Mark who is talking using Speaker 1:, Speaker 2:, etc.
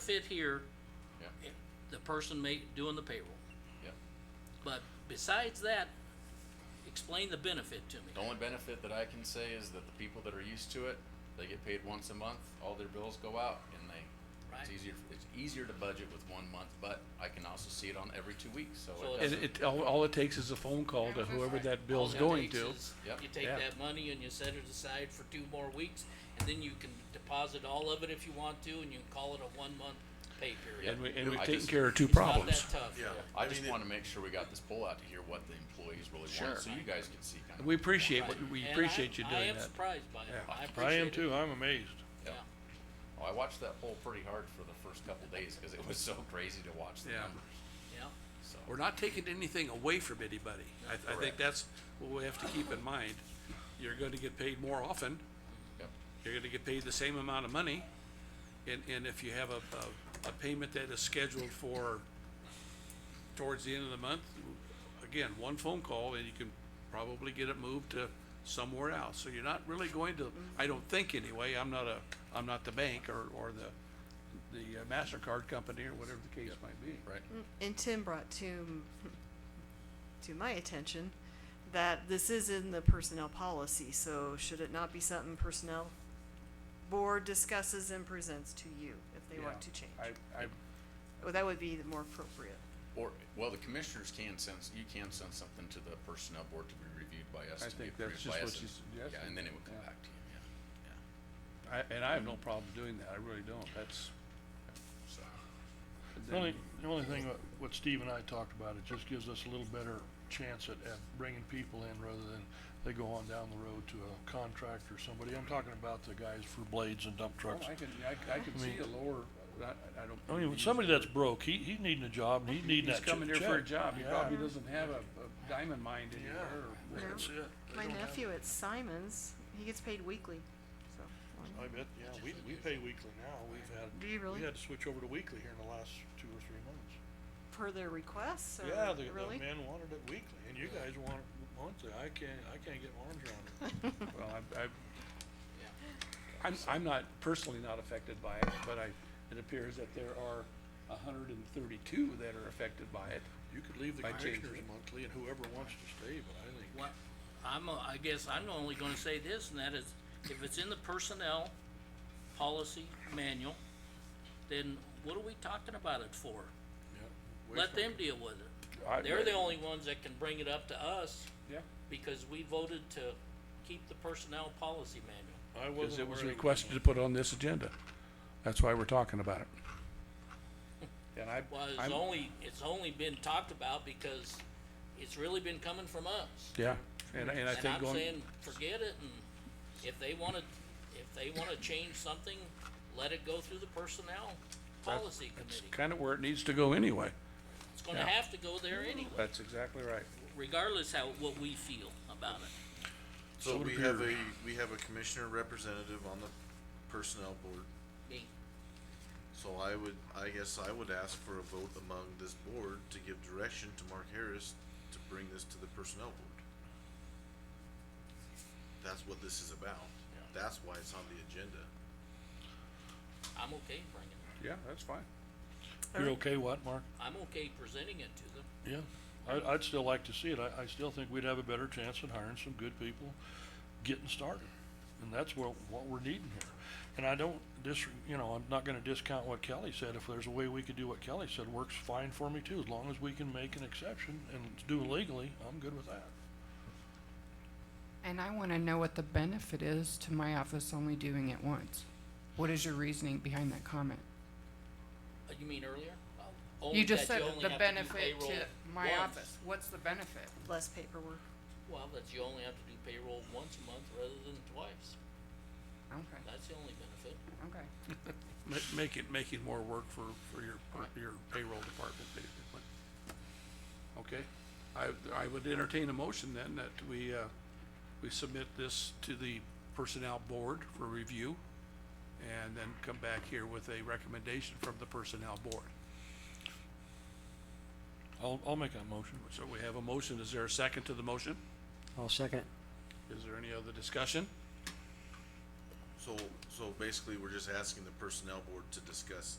Speaker 1: fit here,
Speaker 2: yeah,
Speaker 1: the person may, doing the payroll.
Speaker 2: yeah.
Speaker 1: But besides that, explain the benefit to
Speaker 2: The
Speaker 1: me.
Speaker 2: only benefit that I can say is that the people that are used to it, they get paid once a month, all their bills go out, and they,
Speaker 1: Right.
Speaker 2: it's easier, it's easier to budget with one month, but I can also see it on every two weeks, so
Speaker 1: So
Speaker 2: it
Speaker 1: it's-
Speaker 3: And
Speaker 2: doesn't.
Speaker 3: it, all, all it takes is a phone call to whoever that bill's
Speaker 1: All it
Speaker 3: going
Speaker 1: takes
Speaker 3: to.
Speaker 1: is
Speaker 2: Yep.
Speaker 1: You take
Speaker 3: Yeah.
Speaker 1: that money and you set it aside for two more weeks, and then you can deposit all of it if you want to, and you can call it a one-month pay period.
Speaker 3: And we, and
Speaker 2: I
Speaker 3: we've taken
Speaker 2: just-
Speaker 3: care of two
Speaker 1: It's not
Speaker 3: problems.
Speaker 1: that tough.
Speaker 4: Yeah.
Speaker 2: I
Speaker 4: I
Speaker 2: just
Speaker 4: mean, it-
Speaker 2: wanna make sure we got this pull out to hear what the employees really
Speaker 3: Sure.
Speaker 2: want, so you guys can see kind of.
Speaker 3: We appreciate, what-
Speaker 1: Right.
Speaker 3: we
Speaker 1: And I-
Speaker 3: appreciate you
Speaker 1: I
Speaker 3: doing
Speaker 1: am
Speaker 3: that.
Speaker 1: surprised by it. I
Speaker 5: I
Speaker 1: appreciate
Speaker 5: am
Speaker 1: it.
Speaker 5: too, I'm amazed.
Speaker 1: Yeah.
Speaker 2: Yeah. Oh, I watched that poll pretty hard for the first couple days, cause it was so crazy to watch the
Speaker 3: Yeah.
Speaker 2: numbers,
Speaker 1: Yeah.
Speaker 2: so.
Speaker 3: We're not taking anything away from anybody. I, I think
Speaker 2: Correct.
Speaker 3: that's what we have to keep in mind. You're gonna get paid more often,
Speaker 2: Yep.
Speaker 3: you're gonna get paid the same amount of money. And, and if you have a, a, a payment that is scheduled for towards the end of the month, again, one phone call and you can probably get it moved to somewhere else. So you're not really going to, I don't think anyway, I'm not a, I'm not the bank or, or the, the uh, MasterCard company or whatever the case might be.
Speaker 2: Right,
Speaker 6: and Tim brought to to my attention that this is in the personnel policy, so should it not be something personnel board discusses and presents to you if they want to change?
Speaker 3: I, I,
Speaker 6: Well, that would be the more appropriate.
Speaker 2: or, well, the commissioners can send, you can send something to the personnel board to be reviewed by us,
Speaker 3: I
Speaker 2: to be
Speaker 3: think that's
Speaker 2: approved by
Speaker 3: just
Speaker 2: us.
Speaker 3: what
Speaker 2: and-
Speaker 3: she's
Speaker 2: Yeah,
Speaker 3: suggesting.
Speaker 2: and then it would come
Speaker 3: Yeah.
Speaker 2: back to you, yeah, yeah,
Speaker 3: I- and I have no problem doing that, I really don't, that's.
Speaker 2: so.
Speaker 5: The only, the only thing what, what Steve and I talked about, it just gives us a little better chance at, at bringing people in rather than they go on down the road to a contractor or somebody. I'm talking about the guys for blades and dump trucks.
Speaker 3: Oh, I can, I, I can see a lower, I, I don't.
Speaker 5: I mean, when somebody that's broke, he, he's needing a job and he's needing
Speaker 3: He's
Speaker 5: that che- check.
Speaker 3: coming here for a job, he
Speaker 5: Yeah.
Speaker 3: probably doesn't have a, a diamond mine anywhere, or
Speaker 6: Yeah.
Speaker 5: That's it. They
Speaker 6: My
Speaker 5: don't have-
Speaker 6: nephew at Simon's, he gets paid weekly, so.
Speaker 5: I bet, yeah, we, we pay weekly now, we've had,
Speaker 6: Do you really?
Speaker 5: we had to switch over to weekly here in the last two or three months.
Speaker 3: Uh,
Speaker 6: Per their requests, or
Speaker 5: Yeah, the,
Speaker 6: really?
Speaker 5: the men wanted it weekly, and you guys want it monthly, I can't, I can't get my arms around it.
Speaker 3: well, I, I. I'm, I'm not, personally not affected by it, but I, it appears that there are hundred and thirty-two that are affected by it.
Speaker 5: You could leave the
Speaker 3: By changing
Speaker 5: commissioners
Speaker 3: it.
Speaker 5: monthly and whoever wants to stay, but I think,
Speaker 1: What, I'm, uh, I guess I'm only gonna say this, and that is, if it's in the personnel policy manual, then what are we talking about it for?
Speaker 5: yeah.
Speaker 1: Let them deal with it.
Speaker 3: I-
Speaker 1: They're the only ones that can bring it up to us,
Speaker 3: Yeah,
Speaker 1: because we voted to keep the personnel policy manual.
Speaker 5: I
Speaker 3: cause
Speaker 5: wasn't
Speaker 3: it was
Speaker 5: aware of
Speaker 3: requested to put on this agenda, that's why we're talking about it. And I,
Speaker 1: Well, it's
Speaker 3: I'm,
Speaker 1: only, it's only been talked about because it's really been coming from us.
Speaker 3: yeah, and, and I
Speaker 1: And
Speaker 3: think
Speaker 1: I'm
Speaker 3: going.
Speaker 1: saying, forget it, and if they wanna, if they wanna change something, let it go through the personnel policy
Speaker 3: It's
Speaker 1: committee.
Speaker 3: kind of where it needs to go anyway.
Speaker 1: It's gonna
Speaker 3: yeah.
Speaker 1: have to go there anyway,
Speaker 3: That's exactly right.
Speaker 1: regardless how, what we feel about it.
Speaker 4: So
Speaker 3: Soda
Speaker 4: we have
Speaker 3: beer.
Speaker 4: a, we have a commissioner representative on the personnel board,
Speaker 1: Me,
Speaker 4: so I would, I guess I would ask for a vote among this board to give direction to Mark Harris to bring this to the personnel board. That's what this is about, that's why it's on the agenda.
Speaker 1: I'm okay bringing it,
Speaker 3: Yeah, that's fine.
Speaker 5: You're okay what, Mark?
Speaker 1: I'm okay presenting it to them.
Speaker 5: Yeah, I, I'd still like to see it, I, I still think we'd have a better chance at hiring some good people, getting started. And that's what, what we're needing here. And I don't dis, you know, I'm not gonna discount what Kelly said, if there's a way we could do what Kelly said, works fine for me too, as long as we can make an exception and do it legally, I'm good with that.
Speaker 7: And I want to know what the benefit is to my office only doing it once. What is your reasoning behind that comment?
Speaker 1: Uh, You mean earlier? Oh, only
Speaker 7: You just
Speaker 1: that
Speaker 7: said
Speaker 1: only
Speaker 7: the
Speaker 1: have to do
Speaker 7: benefit to
Speaker 1: payroll
Speaker 7: my
Speaker 1: once.
Speaker 7: office. What's the benefit?
Speaker 6: Less paperwork.
Speaker 1: Well, that you only have to do payroll once a month rather than twice,
Speaker 7: Okay,
Speaker 1: that's the only benefit.
Speaker 7: okay.
Speaker 3: Ma- make it, making more work for, for your, per- your payroll department, basically. Okay, I, I would entertain a motion then that we, uh, we submit this to the personnel board for review and then come back here with a recommendation from the personnel board.
Speaker 5: I'll, I'll make that motion.
Speaker 3: So we have a motion. Is there a second to the motion?
Speaker 8: I'll second it.
Speaker 3: Is there any other discussion?
Speaker 4: So, so basically, we're just asking the personnel board to discuss